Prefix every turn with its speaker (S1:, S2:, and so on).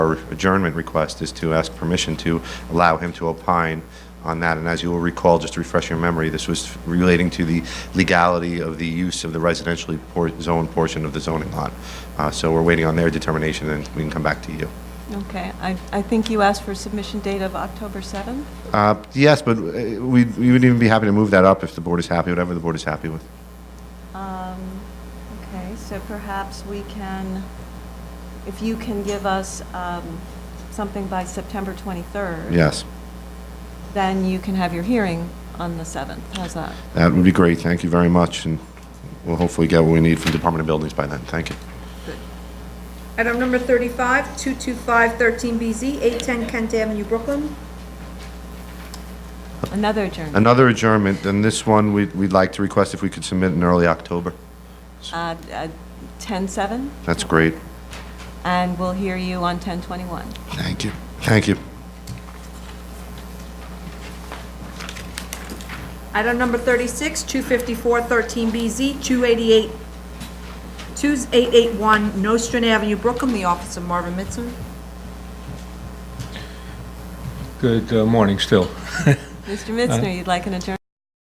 S1: Our adjournment request is to ask permission to allow him to opine on that. And as you will recall, just to refresh your memory, this was relating to the legality of the use of the residentially por- zoned portion of the zoning lot. Uh, So we're waiting on their determination, and we can come back to you.
S2: Okay, I, I think you asked for submission date of October 7th?
S1: Uh, Yes, but uh, we we would even be happy to move that up if the board is happy, whatever the board is happy with.
S2: Um, Okay, so perhaps we can, if you can give us um, something by September 23rd?
S1: Yes,
S2: Then you can have your hearing on the 7th. How's that?
S1: that would be great. Thank you very much, and we'll hopefully get what we need from Department of Buildings by then. Thank you.
S3: Item number 35, 225-13BZ, 810 Kent Avenue, Brooklyn.
S2: Another adjournment.
S1: Another adjournment, and this one, we'd we'd like to request if we could submit in early October.
S2: Uh, uh, 10/7,
S1: That's great.
S2: and we'll hear you on 10/21.
S1: Thank you. Thank you.
S3: Item number 36, 254-13BZ, 288, 2881 Nostrand Avenue, Brooklyn, the office of Marvin Mitson.
S4: Good uh, morning still.
S2: Mr. Mitzner, you'd like an adjournment?